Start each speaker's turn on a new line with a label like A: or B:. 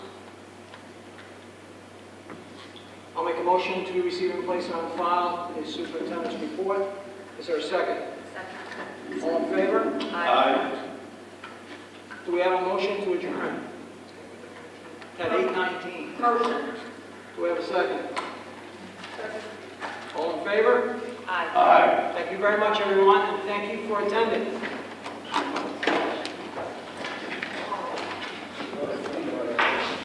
A: a motion to receive and place on file the superintendent's report. Is there a second? All in favor? Do we have a motion to adjourn? At 8:19.
B: Motion.
A: Do we have a second? All in favor?
B: Aye.
A: Thank you very much, everyone, and thank you for attending.